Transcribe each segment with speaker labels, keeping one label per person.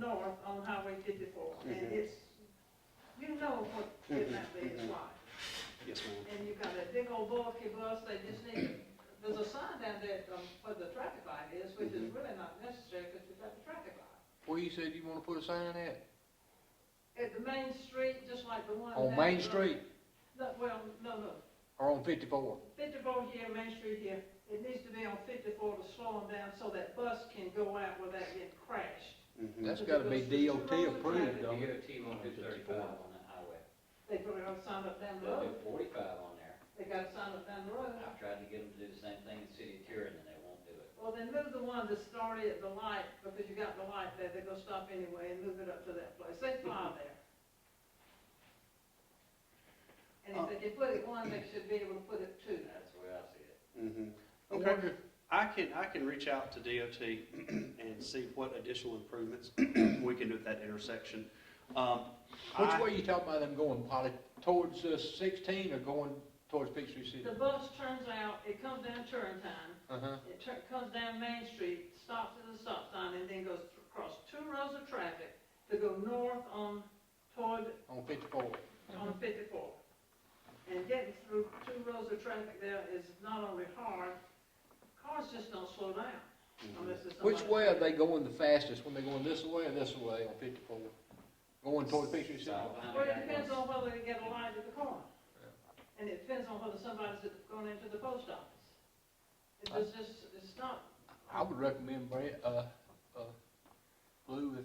Speaker 1: north on Highway fifty-four, and
Speaker 2: Mhm.
Speaker 1: it's, you know what kidnap
Speaker 2: Mhm,
Speaker 1: is
Speaker 2: mhm.
Speaker 1: like.
Speaker 2: Yes, ma'am.
Speaker 1: And you got that big old bulky bus, they just need, there's a sign down there, um, where the traffic light is, which is
Speaker 2: Mhm.
Speaker 1: really not necessary, because you've got the traffic light.
Speaker 3: Where you said you wanna put a sign at?
Speaker 1: At the main street, just like the one.
Speaker 3: On
Speaker 1: down
Speaker 3: Main
Speaker 1: the-
Speaker 3: Street
Speaker 1: No, well, no, no,
Speaker 3: or on fifty-four?
Speaker 1: fifty-four here, Main Street here, it needs to be on fifty-four to slow them down, so that bus can go out without getting crashed.
Speaker 2: Mhm.
Speaker 3: That's gotta be DOT approved, don't it?
Speaker 4: DOT won't do thirty-five on that highway.
Speaker 1: They put it on sign up down the
Speaker 4: They'll do
Speaker 1: road,
Speaker 4: forty-five on there.
Speaker 1: they got a sign up down the road.
Speaker 4: I've tried to get them to do the same thing in the city of Turin, and they won't do it.
Speaker 1: Well, then move the one that started at the light, because you got the light there, they're gonna stop anyway and move it up to that place, they fly there. And if they can put it one, they should be able to put it two.
Speaker 4: That's the way I see it.
Speaker 2: Mhm.
Speaker 3: I
Speaker 2: Okay.
Speaker 3: wonder
Speaker 2: I can, I can reach out to DOT and see what additional improvements we can do at that intersection. Um,
Speaker 3: Which
Speaker 2: I-
Speaker 3: way you talking about them going, Polly? Towards uh, sixteen or going towards Peachtree City?
Speaker 1: The bus turns out, it comes down Turin time,
Speaker 3: Uh-huh.
Speaker 1: it tur- comes down Main Street, stops at the stop sign, and then goes across two rows of traffic to go north on, toward
Speaker 3: On fifty-four.
Speaker 1: on fifty-four. And getting through two rows of traffic there is not only hard, cars just don't slow down unless it's somebody.
Speaker 3: Which way are they going the fastest? When they going this way or this way on fifty-four? Going towards Peachtree City?
Speaker 4: Stop behind the
Speaker 1: Well, it
Speaker 4: guy
Speaker 1: depends
Speaker 4: goes-
Speaker 1: on whether they get a light at the corner. And it depends on whether somebody's at- going into the post office. It was just, it's not,
Speaker 3: I would recommend, Brad, uh, uh, Lou, if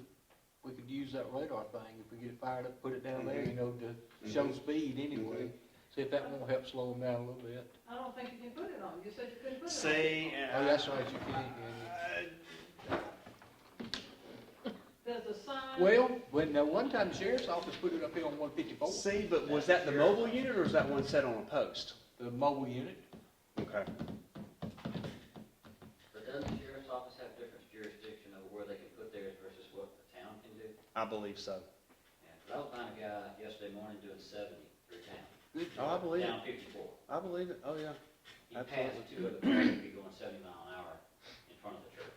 Speaker 3: we could use that radar thing, if we get it fired up, put it down
Speaker 2: Mm-hmm.
Speaker 3: there, you know, to show
Speaker 2: Mhm.
Speaker 3: speed anyway.
Speaker 2: Mm-hmm.
Speaker 3: See if that won't help slow them down a little bit.
Speaker 1: I don't think you can put it on, you said you couldn't put it on.
Speaker 2: Say.
Speaker 3: Oh, that's right, you can't,
Speaker 2: uh,
Speaker 3: can
Speaker 1: There's a sign.
Speaker 3: you? Well, when, now, one time the sheriff's office put it up here on one fifty-four,
Speaker 2: See, but was that the mobile unit or was that one set on a post?
Speaker 3: the mobile unit.
Speaker 2: Okay.
Speaker 4: But does the sheriff's office have different jurisdiction over where they can put theirs versus what the town can do?
Speaker 2: I believe so.
Speaker 4: And 'cause I was behind a guy yesterday morning doing seventy through town.
Speaker 3: Good.
Speaker 2: Oh, I believe it.
Speaker 4: Down fifty-four.
Speaker 2: I believe it. Oh, yeah.
Speaker 4: He passed
Speaker 2: Absolutely.
Speaker 4: two other cars that would be going seventy mile an hour in front of the church.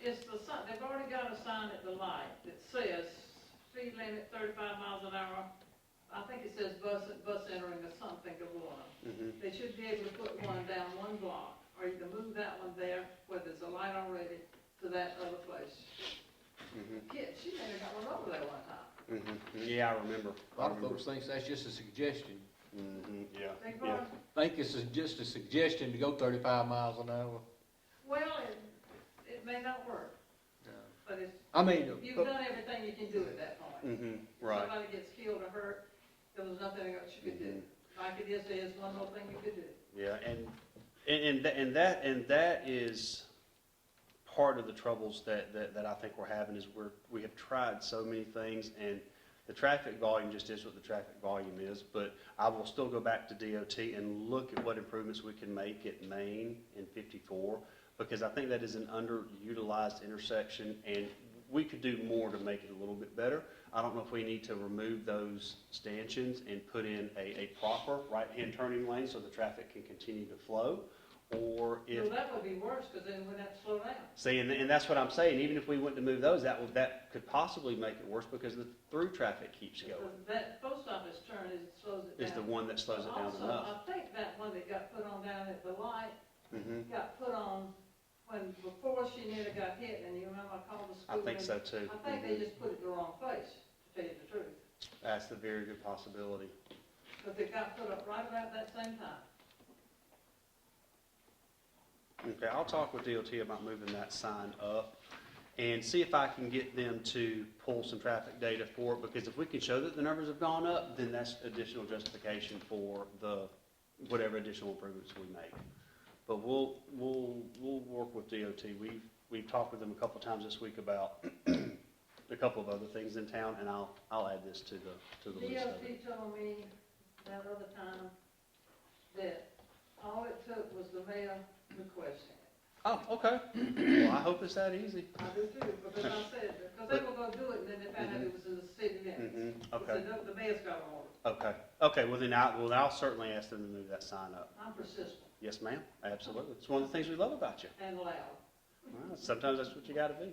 Speaker 1: It's the sign, they've already got a sign at the light that says speed limit thirty-five miles an hour. I think it says bus, bus entering or something of one.
Speaker 2: Mhm.
Speaker 1: They should be able to put one down one block, or you can move that one there, where there's a light already, to that other place.
Speaker 2: Mhm.
Speaker 1: Kid, she may have got one over there one time.
Speaker 2: Mhm. Yeah, I remember.
Speaker 3: Mm-hmm. A lot of folks think that's just a suggestion.
Speaker 2: Mhm. Yeah.
Speaker 1: They've
Speaker 2: Yeah.
Speaker 1: already-
Speaker 3: Think it's a- just a suggestion to go thirty-five miles an hour.
Speaker 1: well, it, it may not work, but it's,
Speaker 3: I mean,
Speaker 1: you've
Speaker 3: but-
Speaker 1: done everything you can do at that point.
Speaker 2: Mhm. Right.
Speaker 1: Somebody gets killed or hurt, there was nothing else you could do. Like it is, there's one more thing you could do.
Speaker 2: Yeah, and, and, and tha- and that, and that is part of the troubles that, that, that I think we're having is we're, we have tried so many things and the traffic volume just is what the traffic volume is, but I will still go back to DOT and look at what improvements we can make at Main and fifty-four, because I think that is an underutilized intersection and we could do more to make it a little bit better. I don't know if we need to remove those stanchions and put in a, a proper right-hand turning lane so the traffic can continue to flow, or if.
Speaker 1: Well, that would be worse, because then we'd have to slow down.
Speaker 2: See, and, and that's what I'm saying, even if we went to move those, that would, that could possibly make it worse because the through traffic keeps going,
Speaker 1: Because That post office turn is, slows it down.
Speaker 2: is the one that slows it down enough.
Speaker 1: Also, uh, I think that one that got put on down at the light
Speaker 2: Mhm.
Speaker 1: got put on when, before she nearly got hit, and you remember I called the
Speaker 2: I
Speaker 1: school.
Speaker 2: think
Speaker 1: and-
Speaker 2: so too. Mm-hmm.
Speaker 1: I think they just put it the wrong place, to tell you the truth,
Speaker 2: That's the very good possibility.
Speaker 1: because it got put up right about that same time.
Speaker 2: Okay, I'll talk with DOT about moving that sign up and see if I can get them to pull some traffic data for it, because if we can show that the numbers have gone up, then that's additional justification for the, whatever additional improvements we make. But we'll, we'll, we'll work with DOT. We've, we've talked with them a couple times this week about a couple of other things in town, and I'll, I'll add this to the, to the list of it.
Speaker 1: DOT told me that other time that all it took was the mayor requesting it.
Speaker 2: Oh, okay. Well, I hope it's that easy.
Speaker 1: I do too, because I said, because they were gonna do it, and then they found out it was in the city limits.
Speaker 2: Mm-hmm. Okay.
Speaker 1: So no, the mayor's got an order,
Speaker 2: Okay, okay, well then I, well, I'll certainly ask them to move that sign up.
Speaker 1: I'm persistent
Speaker 2: Yes, ma'am, absolutely. It's one of the things we love about you.
Speaker 1: and loud.
Speaker 2: Well, Sometimes that's what you gotta do.